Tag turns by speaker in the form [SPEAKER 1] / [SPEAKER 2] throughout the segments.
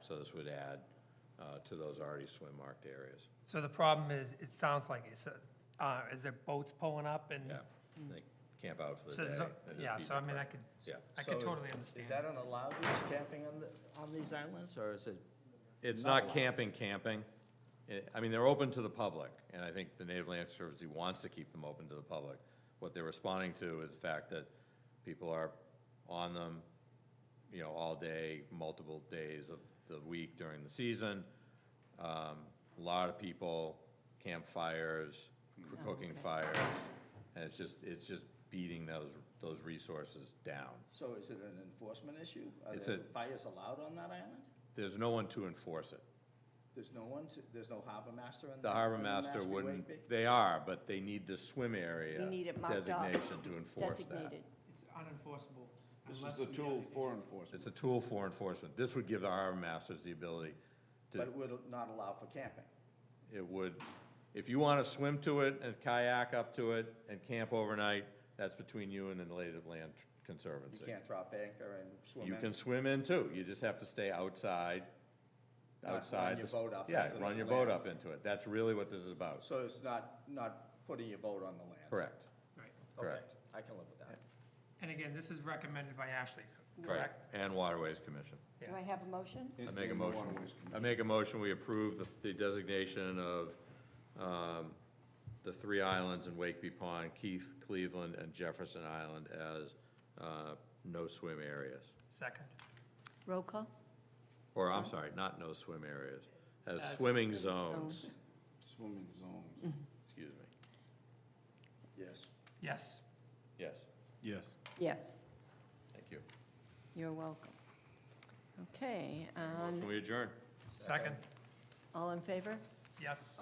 [SPEAKER 1] so this would add uh, to those already swim-marked areas.
[SPEAKER 2] So the problem is, it sounds like it's, uh, is there boats pulling up and?
[SPEAKER 1] Yeah, they camp out for
[SPEAKER 2] So
[SPEAKER 1] the day.
[SPEAKER 2] there's no-
[SPEAKER 1] and just
[SPEAKER 2] Yeah,
[SPEAKER 1] be
[SPEAKER 2] so I mean, I
[SPEAKER 1] depressed.
[SPEAKER 2] could,
[SPEAKER 1] Yeah.
[SPEAKER 2] I could
[SPEAKER 3] So is-
[SPEAKER 2] totally
[SPEAKER 3] Is
[SPEAKER 2] understand.
[SPEAKER 3] that an allowed use camping on the, on these islands, or is it?
[SPEAKER 1] It's
[SPEAKER 3] Not
[SPEAKER 1] not
[SPEAKER 3] allowed.
[SPEAKER 1] camping, camping. Eh, I mean, they're open to the public, and I think the Native Land Conservancy wants to keep them open to the public. What they're responding to is the fact that people are on them, you know, all day, multiple days of the week during the season. Um, A lot of people, campfires, c- cooking fires, and it's just, it's just beating those, those resources down.
[SPEAKER 3] So is it an enforcement issue? Are
[SPEAKER 1] It's
[SPEAKER 3] there
[SPEAKER 1] a-
[SPEAKER 3] fires allowed on that island?
[SPEAKER 1] There's no one to enforce it.
[SPEAKER 3] There's no one, to- there's no harbor master in the.
[SPEAKER 1] The harbor
[SPEAKER 3] in
[SPEAKER 1] master
[SPEAKER 3] Mashpee
[SPEAKER 1] wouldn't,
[SPEAKER 3] Wakeby?
[SPEAKER 1] they are, but they need the swim area
[SPEAKER 4] We need it marked up.
[SPEAKER 1] designation to enforce that.
[SPEAKER 4] designated.
[SPEAKER 2] It's unenforceable.
[SPEAKER 5] This
[SPEAKER 2] unless
[SPEAKER 5] is a
[SPEAKER 2] we
[SPEAKER 5] tool
[SPEAKER 2] designate-
[SPEAKER 5] for enforcement.
[SPEAKER 1] It's a tool for enforcement. This would give the harbor masters the ability
[SPEAKER 3] But
[SPEAKER 1] to,
[SPEAKER 3] it would not allow for camping.
[SPEAKER 1] it would, if you want to swim to it and kayak up to it and camp overnight, that's between you and the Native Land
[SPEAKER 3] You
[SPEAKER 1] Conservancy.
[SPEAKER 3] can't drop anchor and swim in.
[SPEAKER 1] You can swim in too. You just have to stay outside,
[SPEAKER 3] Not run
[SPEAKER 1] outside.
[SPEAKER 3] your
[SPEAKER 1] the s-
[SPEAKER 3] boat up
[SPEAKER 1] Yeah,
[SPEAKER 3] into
[SPEAKER 1] run
[SPEAKER 3] the
[SPEAKER 1] your boat
[SPEAKER 3] land.
[SPEAKER 1] up into it. That's really what this is about.
[SPEAKER 3] So it's not, not putting your boat on the land?
[SPEAKER 1] Correct.
[SPEAKER 2] Right.
[SPEAKER 3] Okay,
[SPEAKER 1] correct.
[SPEAKER 3] I can live with that.
[SPEAKER 2] And again, this is recommended by Ashley,
[SPEAKER 1] Correct.
[SPEAKER 2] correct?
[SPEAKER 1] And Waterways Commission.
[SPEAKER 4] Do I have a motion?
[SPEAKER 1] I make a
[SPEAKER 5] In the
[SPEAKER 1] motion,
[SPEAKER 5] waterways
[SPEAKER 1] I make a motion, we approve the- the designation of um, the three islands in Wakeby Pond, Keith, Cleveland, and Jefferson Island as uh, no swim areas.
[SPEAKER 2] Second.
[SPEAKER 4] Roll call?
[SPEAKER 1] Or, I'm sorry, not no swim areas, as swimming zones,
[SPEAKER 5] Swimming zones.
[SPEAKER 1] excuse me.
[SPEAKER 3] Yes.
[SPEAKER 2] Yes.
[SPEAKER 1] Yes,
[SPEAKER 5] Yes.
[SPEAKER 4] Yes,
[SPEAKER 1] thank you.
[SPEAKER 4] you're welcome. Okay, um,
[SPEAKER 1] Can we adjourn?
[SPEAKER 2] Second.
[SPEAKER 4] all in favor?
[SPEAKER 2] Yes.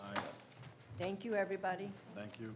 [SPEAKER 4] Thank you, everybody.
[SPEAKER 5] Thank you.